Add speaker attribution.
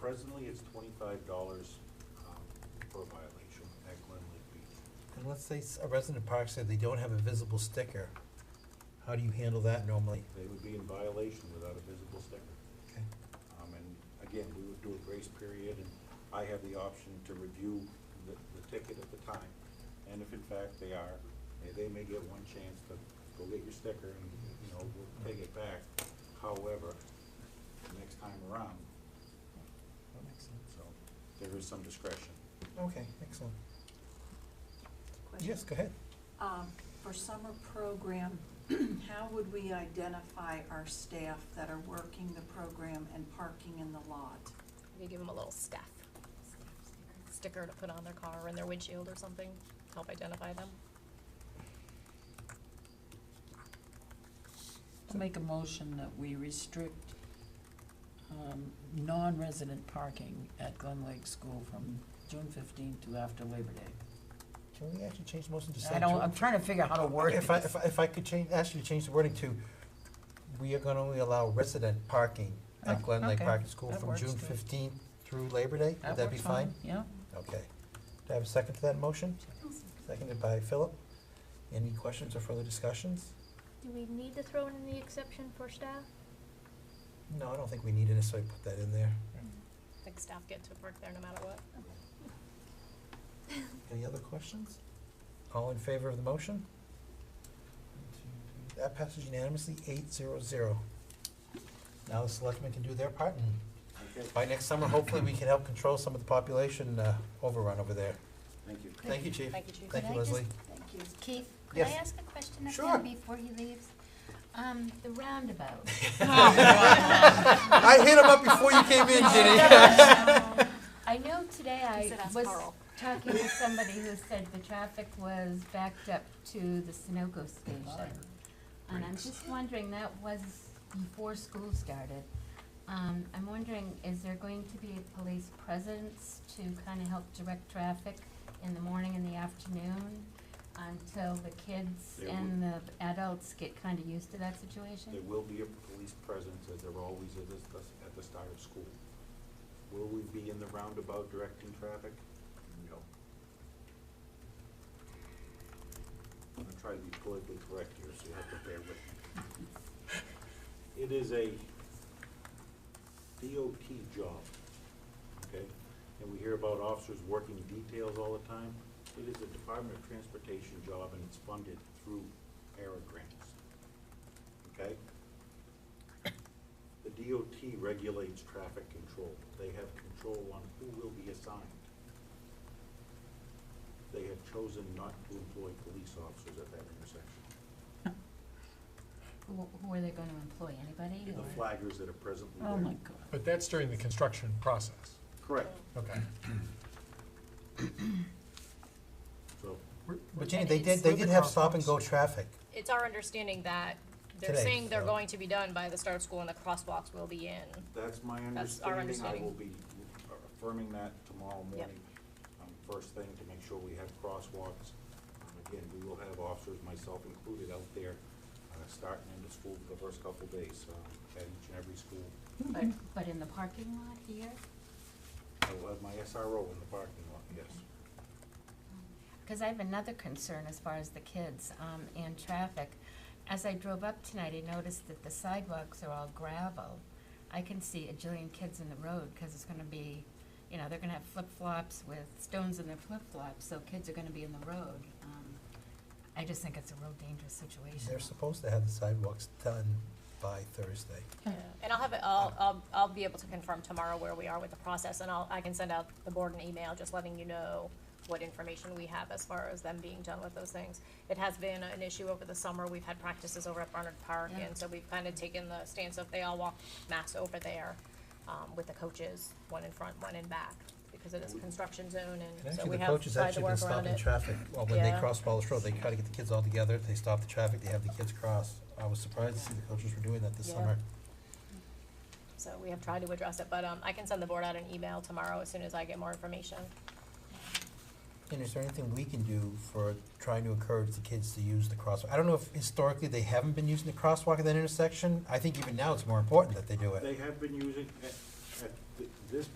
Speaker 1: Presently, it's twenty-five dollars, um, per violation at Glen Lake Beach.
Speaker 2: And let's say s- a resident park said they don't have a visible sticker, how do you handle that normally?
Speaker 1: They would be in violation without a visible sticker.
Speaker 2: Okay.
Speaker 1: Um, and again, we would do a grace period, and I have the option to review the, the ticket at the time. And if in fact they are, eh, they may get one chance to go get your sticker and, you know, we'll take it back. However, the next time around,
Speaker 2: That makes sense.
Speaker 1: so there is some discretion.
Speaker 2: Okay, excellent.
Speaker 3: Question.
Speaker 2: Yes, go ahead.
Speaker 3: Um, For summer program, how would we identify our staff that are working the program and parking in the lot?
Speaker 4: You give them a little staff sticker to put on their car or in their windshield or something, to help identify them.
Speaker 5: I'll make a motion that we restrict um, non-resident parking at Glen Lake School from June fifteenth to after Labor Day.
Speaker 2: Can we actually change the motion to
Speaker 5: I
Speaker 2: sanctuary?
Speaker 5: don't, I'm trying to figure out how to word
Speaker 2: If I,
Speaker 5: this.
Speaker 2: if I, if I could change, ask you to change the wording to, we are gonna only allow resident parking at
Speaker 5: Oh,
Speaker 2: Glen Lake
Speaker 5: okay.
Speaker 2: Parking School
Speaker 5: That
Speaker 2: from
Speaker 5: works,
Speaker 2: June
Speaker 5: too.
Speaker 2: fifteenth through Labor Day, would that be
Speaker 5: works
Speaker 2: fine?
Speaker 5: Yeah.
Speaker 2: Okay. Do I have a second to that motion? Seconded by Philip. Any questions or further discussions?
Speaker 6: Do we need to throw in the exception for staff?
Speaker 2: No, I don't think we need to necessarily put that in there.
Speaker 4: I think staff get to park there no matter what.
Speaker 2: Any other questions? All in favor of the motion? That passes unanimously, eight zero zero. Now the selectmen can do their part, and
Speaker 1: Okay,
Speaker 2: by next summer, hopefully, we can help control some of the population uh, overrun over there.
Speaker 1: thank you.
Speaker 2: Thank you, chief.
Speaker 4: Thank you, Chief.
Speaker 2: Thank you,
Speaker 7: Could I just-
Speaker 2: Leslie.
Speaker 3: Thank you.
Speaker 7: Keith, could I
Speaker 2: Yes.
Speaker 7: ask a question of
Speaker 2: Sure.
Speaker 7: him before he leaves? Um, the roundabout.
Speaker 2: I hit him up before you came in, Ginny.
Speaker 7: I know today I
Speaker 4: said ask
Speaker 7: was
Speaker 4: Carl.
Speaker 7: talking to somebody who said the traffic was backed up to the Sunoco station. And I'm just wondering, that was before school started. Um, I'm wondering, is there going to be a police presence to kinda help direct traffic in the morning and the afternoon? Until the kids
Speaker 1: There
Speaker 7: and the adults get kinda used to that situation?
Speaker 1: There will be a police presence, as there always is at the, at the start of school. Will we be in the roundabout directing traffic? No. I'm gonna try to be politically correct here, so you have to bear with me. It is a DOT job, okay? And we hear about officers working details all the time. It is a Department of Transportation job, and it's funded through ARA grants okay? The DOT regulates traffic control. They have control on who will be assigned. They have chosen not to employ police officers at that intersection.
Speaker 7: Who, who are they gonna employ, anybody or?
Speaker 1: The flaggers that are presently there.
Speaker 5: Oh, my God.
Speaker 8: But that's during the construction process.
Speaker 1: Correct.
Speaker 8: Okay.
Speaker 1: So,
Speaker 2: But Ginny, they did, they
Speaker 8: With the
Speaker 2: did have stop-and-go
Speaker 8: crosswalks.
Speaker 2: traffic.
Speaker 4: It's our understanding that they're
Speaker 2: Today,
Speaker 4: saying they're
Speaker 2: so-
Speaker 4: going to be done by the start of school and the crosswalks will be in.
Speaker 1: that's my
Speaker 4: That's our
Speaker 1: understanding. I will be
Speaker 4: understanding.
Speaker 1: affirming that tomorrow
Speaker 4: Yep.
Speaker 1: morning. Um, First thing, to make sure we have crosswalks. Um, Again, we will have officers, myself included, out there, uh, starting in the school for the first couple days, um, at each and every school.
Speaker 7: But, but in the parking lot here?
Speaker 1: I will have my SRO in the parking lot, yes.
Speaker 7: Because I have another concern as far as the kids um, and traffic. As I drove up tonight, I noticed that the sidewalks are all gravel. I can see a jillion kids in the road because it's going to be, you know, they're going to have flip flops with stones in their flip flops, so kids are going to be in the road. Um, I just think it's a real dangerous situation.
Speaker 2: They're supposed to have the sidewalks done by Thursday.
Speaker 4: And I'll have it, I'll, I'll, I'll be able to confirm tomorrow where we are with the process and I'll, I can send out the board an email just letting you know what information we have as far as them being done with those things. It has been an issue over the summer. We've had practices over at Barnard Park
Speaker 7: Yeah.
Speaker 4: and so we've kind of taken the stance of they all walk mass over there, um, with the coaches, one in front, one in back, because it is a construction zone and
Speaker 2: And
Speaker 4: so
Speaker 2: actually,
Speaker 4: we
Speaker 2: the
Speaker 4: have
Speaker 2: coaches
Speaker 4: tried to
Speaker 2: actually been
Speaker 4: work around
Speaker 2: stopping
Speaker 4: it.
Speaker 2: traffic, well, when they
Speaker 4: Yeah.
Speaker 2: cross Ballast Road, they try to get the kids all together, they stop the traffic, they have the kids cross. I was surprised to see the coaches were doing that this
Speaker 4: Yeah.
Speaker 2: summer.
Speaker 4: So we have tried to address it, but, um, I can send the board out an email tomorrow as soon as I get more information.
Speaker 2: And is there anything we can do for trying to encourage the kids to use the crosswalk? I don't know if historically they haven't been using the crosswalk at that intersection. I think even now it's more important that they do it.
Speaker 1: They have been using, at, at th- this